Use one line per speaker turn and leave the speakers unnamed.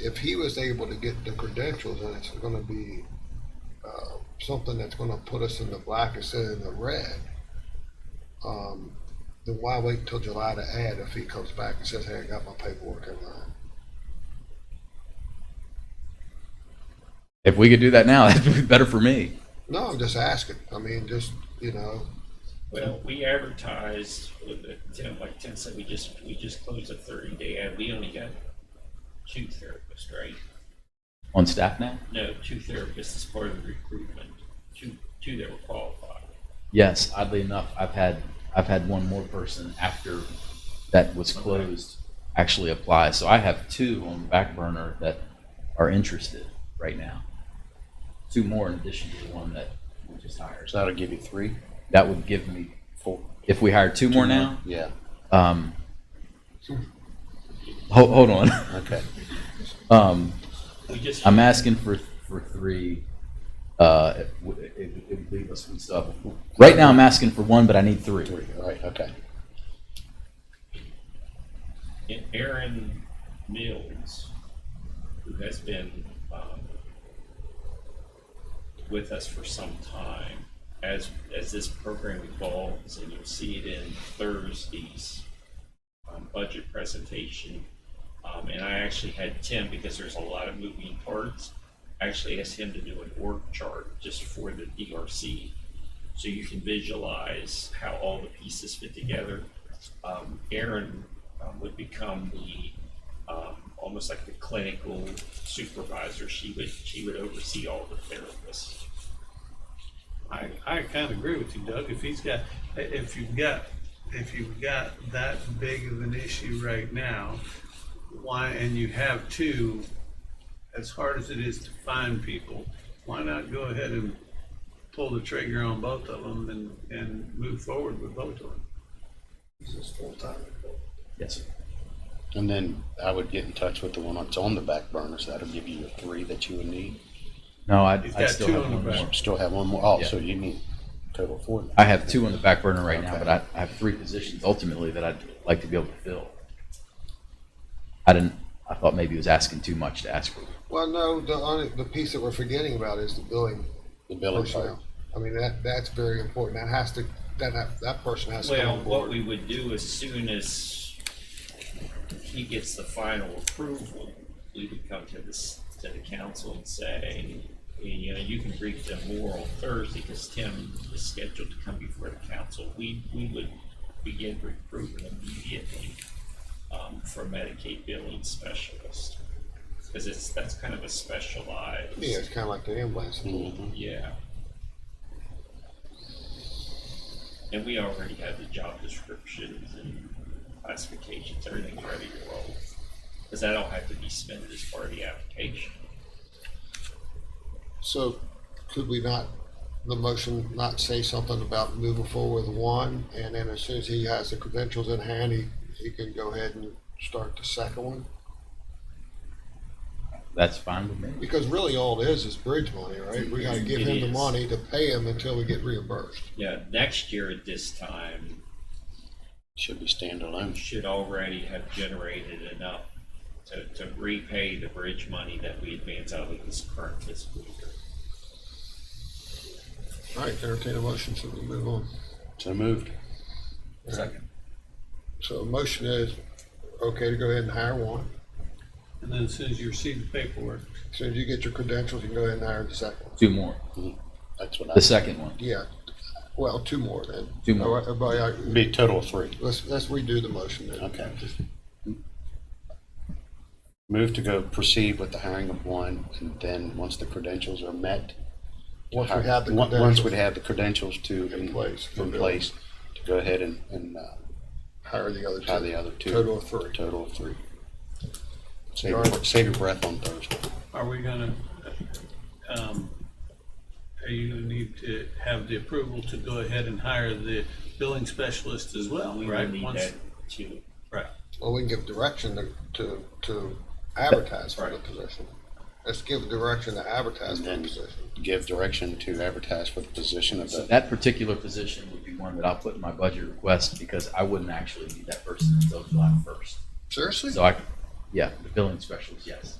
if he was able to get the credentials, and it's gonna be, uh, something that's gonna put us in the black instead of the red, um, then why wait till July to add if he comes back and says, hey, I got my paperwork in line?
If we could do that now, that'd be better for me.
No, I'm just asking. I mean, just, you know,
Well, we advertised with the ten, like Tim said, we just, we just closed a thirty day ad. We only got two therapists, right?
On staff now?
No, two therapists as part of the recruitment, two, two that were qualified.
Yes, oddly enough, I've had, I've had one more person after that was closed actually apply. So I have two on the back burner that are interested right now. Two more in addition to the one that we just hired.
So that'll give you three,
That would give me,
four.
if we hire two more now,
Yeah,
um, hold, hold on.
okay.
Um,
We just,
I'm asking for, for three, uh, it would, it would- it would leave us with stuff. Right now, I'm asking for one, but I need three.
Three, all right, okay.
and Aaron Mills, who has been, um, with us for some time, as, as this program evolves, and you'll see it in Thursday's, um, budget presentation. Um, and I actually had Tim, because there's a lot of moving parts, I actually asked him to do an org chart just for the DRC. So you can visualize how all the pieces fit together. Um, Aaron um, would become the, um, almost like the clinical supervisor. She would, she would oversee all the therapists.
I, I kind of agree with you, Doug. If he's got, if you've got, if you've got that big of an issue right now, why, and you have two, as hard as it is to find people, why not go ahead and pull the trigger on both of them and, and move forward with both of them?
he's just full-time.
Yes, sir.
And then I would get in touch with the one that's on the back burner, so that'll give you the three that you would need.
No, I,
He's
I
got
still
two
have
on the
one
back.
more.
Still have one more, oh,
Yeah.
so you need total four. now.
I have two on the back burner right now,
Okay.
but I, I have three positions ultimately that I'd like to be able to fill. I didn't, I thought maybe he was asking too much to ask for.
Well, no, the only, the piece that we're forgetting about is the billing
The billing part.
personnel. I mean, that, that's very important. That has to, that, that, that person has to come
Well,
on
what
board.
we would do as soon as he gets the final approval, we would come to this, to the council and say, you know, you can brief them more on Thursday, because Tim is scheduled to come before the council. We, we would begin recruiting immediately, um, for Medicaid billing specialist. Because it's, that's kind of a specialized.
Yeah, it's kind of like the ambulance.
Yeah. And we already have the job descriptions and classifications, everything's ready to roll. Cause that'll have to be spent as part of the application.
So could we not, the motion not say something about moving forward with one? And then as soon as he has the credentials in hand, he, he can go ahead and start the second one?
That's fine with me.
Because really all it is is bridge money, right? We gotta give
It
him the
is.
money to pay him until we get reimbursed.
Yeah, next year at this time,
Should be
we
standalone.
should already have generated enough to, to repay the bridge money that we advance out of this current fiscal year.
All right, entertain a motion, so we move on.
So moved.
So a motion is, okay, to go ahead and hire one.
And then as soon as you receive the paperwork,
As Soon as you get your credentials, you can go ahead and hire the second one.
Two more.
That's what
The
I,
second one.
Yeah, well, two more then.
Two more.
All right, Everybody, all right,
be a total of three.
uh, let's, let's redo the motion then.
Okay. Move to go proceed with the hiring of one, and then, once the credentials are met. to
Once we
hire-
have the
on- Once we
credentials.
have the credentials to.
In place.
In place, to go ahead and, and, uh,
Hire the other two.
hire the other two.
Total of three.
Total of three. Save, your- save your breath on Thursday.
are we gonna, um, are you gonna need to have the approval to go ahead and hire the billing specialist as well,
We
right?
will need
Once-
that to,
Right.
Well, we can give direction to, to, to advertise for the position. Let's give direction to advertise for the
And-
position.
Give direction to advertise for the position of
So
the,
that particular position would be one that I'll put in my budget request because I wouldn't actually need that person until July first.
Seriously?
So I, yeah, the billing specialist, yes.